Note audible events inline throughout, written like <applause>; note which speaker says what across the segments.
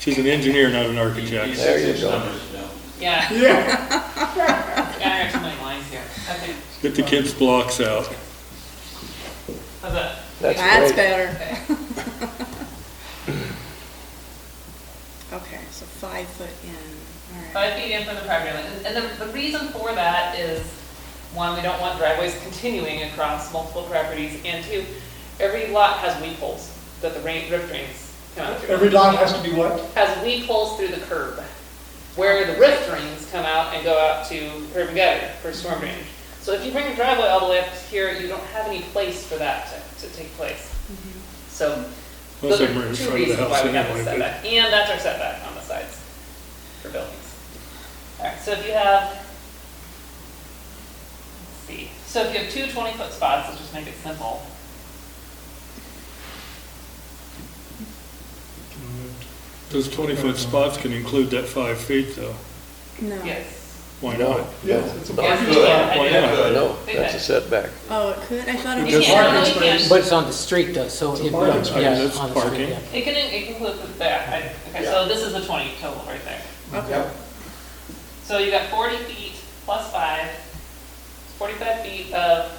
Speaker 1: She's an engineer, not an
Speaker 2: He
Speaker 1: architect.
Speaker 2: says
Speaker 3: There you
Speaker 2: his
Speaker 3: go.
Speaker 2: numbers down.
Speaker 4: Yeah, <laughs>
Speaker 1: Yeah.
Speaker 4: gotta have some like lines here. Okay,
Speaker 1: Get the kids' blocks out.
Speaker 4: how's that?
Speaker 3: That's
Speaker 5: That's
Speaker 3: great.
Speaker 5: better.
Speaker 4: Okay.
Speaker 5: Okay, so five foot in, all right.
Speaker 4: Five feet in from the property line. And- And the, the reason for that is, one, we don't want driveways continuing across multiple properties, and two, every lot has weed holes that the rain, drip drains come out through.
Speaker 6: Every lot has to be what?
Speaker 4: Has weed holes through the curb, where the rift drains come out and go out to curb and gutter for storm drainage. So if you bring your driveway all the way up to here, you don't have any place for that to, to take place. So
Speaker 1: Unless
Speaker 4: those are
Speaker 1: I'm right in
Speaker 4: two
Speaker 1: front of the
Speaker 4: reasons
Speaker 1: house
Speaker 4: why we have
Speaker 1: anyway.
Speaker 4: the
Speaker 1: but-
Speaker 4: setback, and that's our setback on the sides for buildings. All right, so if you have, let's see, so if you have two 20-foot spots, let's just make it simple.
Speaker 1: Those 20-foot spots can include that five feet, though.
Speaker 5: No.
Speaker 4: Yes.
Speaker 1: Why not?
Speaker 6: Yes, it's a
Speaker 3: No.
Speaker 6: block.
Speaker 4: Yes, you can. I
Speaker 1: Why
Speaker 4: do.
Speaker 1: not?
Speaker 3: No, that's a setback.
Speaker 5: Oh, it could, I thought it
Speaker 4: You
Speaker 5: was.
Speaker 4: can't, no,
Speaker 6: Parking
Speaker 4: you can't.
Speaker 6: space.
Speaker 7: But it's on the street though, so.
Speaker 6: It's a
Speaker 7: it-
Speaker 6: parking
Speaker 7: yeah,
Speaker 6: space.
Speaker 7: on the
Speaker 1: That's
Speaker 7: street,
Speaker 1: parking.
Speaker 7: yeah.
Speaker 4: It can, it can include the back, I- okay, so this is the 20 total right there.
Speaker 5: Okay,
Speaker 6: Yep.
Speaker 4: So you got 40 feet plus five, 45 feet of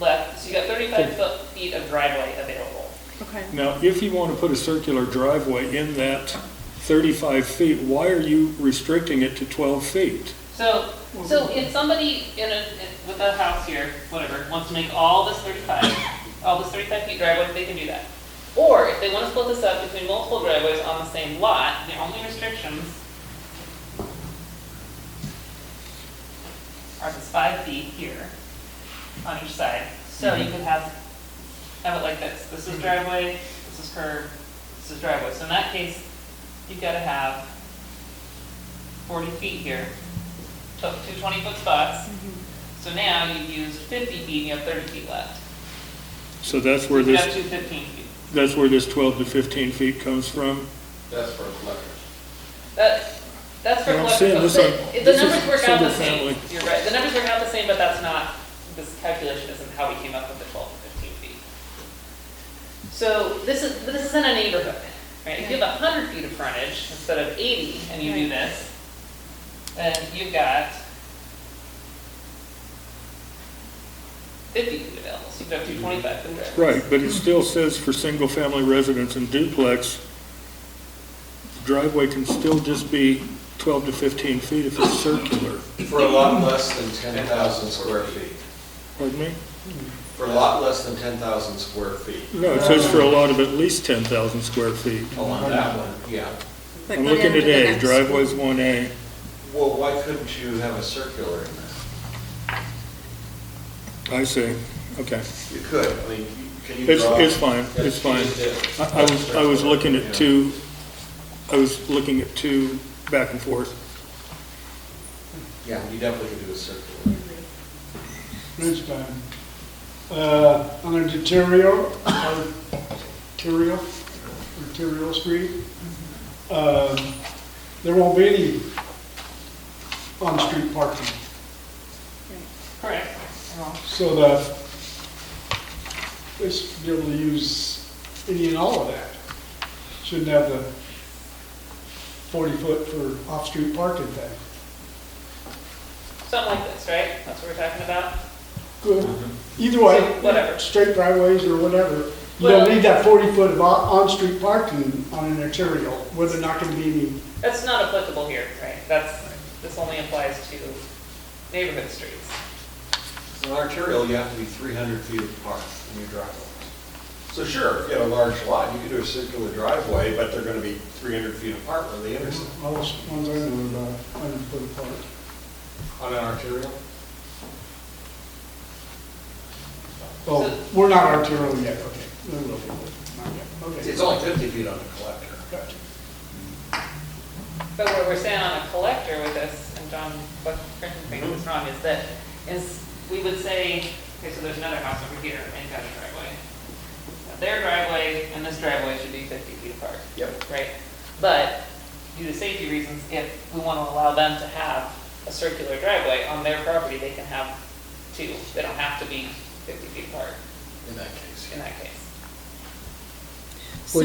Speaker 4: left, so you got 35 foot feet of driveway available.
Speaker 5: okay.
Speaker 1: Now, if you want to put a circular driveway in that 35 feet, why are you restricting it to 12 feet?
Speaker 4: So, so if somebody in a, in- with a house here, whatever, wants to make all this thirty-five, all this thirty-five feet driveway, they can do that. Or if they wanna split this up between multiple driveways on the same lot, the only restrictions are this five feet here on each side, so you could have, have it like this, this is driveway, this is curb, this is driveway, so in that case, you've gotta have forty feet here, took two twenty-foot spots, so now you've used fifty feet, and you have thirty feet left.
Speaker 1: So that's where
Speaker 4: You have
Speaker 1: this,
Speaker 4: two fifteen feet.
Speaker 1: that's where this 12 to 15 feet comes from?
Speaker 2: That's for collectors.
Speaker 4: That, that's for
Speaker 1: Well, I'm
Speaker 4: collective,
Speaker 1: saying this
Speaker 4: but
Speaker 1: on-
Speaker 4: the- the
Speaker 1: this is
Speaker 4: numbers work out the
Speaker 1: single
Speaker 4: same,
Speaker 1: family.
Speaker 4: you're right, the numbers work out the same, but that's not, this calculation isn't how we came up with the twelve to fifteen feet. So this is, but this is in a neighborhood, right, if you have hundred feet of frontage instead of eighty, and you do this, then you've got fifty feet available, so you've got two twenty-five foot driveways.
Speaker 1: Right, but it still says for single-family residence and duplex, driveway can still just be 12 to 15 feet if it's circular.
Speaker 8: For a lot less than 10,000 square feet.
Speaker 1: Pardon me?
Speaker 8: For a lot less than 10,000 square feet.
Speaker 1: No, it says for a lot of at least 10,000 square feet.
Speaker 8: Oh, on that one, yeah.
Speaker 5: But
Speaker 1: I'm
Speaker 5: go down
Speaker 1: looking
Speaker 5: to
Speaker 1: at
Speaker 5: the
Speaker 1: A,
Speaker 5: next.
Speaker 1: driveway's 1A.
Speaker 8: Well, why couldn't you have a circular in that?
Speaker 1: I see, okay.
Speaker 8: You could, I mean, you- can you
Speaker 1: It's,
Speaker 8: draw?
Speaker 1: it's fine, it's
Speaker 2: That's what
Speaker 1: fine.
Speaker 2: you did.
Speaker 1: I I was, I was looking at two, I was looking at two back and forth.
Speaker 8: Yeah, you definitely could do a circular.
Speaker 6: Next time. Uh, on a deterioro, arterial, arterial street, um, there won't be any on-street parking.
Speaker 4: Correct.
Speaker 6: So that they should be able to use any and all of that. Shouldn't have the forty foot for off-street parking thing.
Speaker 4: Something like this, right? That's what we're talking about?
Speaker 6: Good. Either way,
Speaker 4: Mm-hmm. Whatever.
Speaker 6: straight driveways or whatever, you
Speaker 4: Well-
Speaker 6: don't need that forty foot of on- on-street parking on an arterial, where they're not gonna be any,
Speaker 4: That's not applicable here, right? That's, this only applies to neighborhood streets.
Speaker 8: In an arterial, you have to be 300 feet apart from your driveway. So sure, if you had a large lot, you could do a circular driveway, but they're going to be 300 feet apart where they intersect.
Speaker 6: all those ones I know about, hundred foot apart.
Speaker 8: On an arterial?
Speaker 6: Well, we're not arterial yet, okay. No, no, no, not yet.
Speaker 8: It's
Speaker 6: Okay.
Speaker 8: only 50 feet on a collector.
Speaker 6: Gotcha.
Speaker 4: But what we're saying on a collector with this, and John, what, correct me if it's wrong, is that, is, we would say, okay, so there's another house over here and got a driveway. Now, Their driveway and this driveway should be fifty feet apart.
Speaker 8: Yep.
Speaker 4: Right? But due to safety reasons, if we want to allow them to have a circular driveway on their property, they can have two. They don't have to be fifty feet apart
Speaker 8: In that case,
Speaker 4: in that case.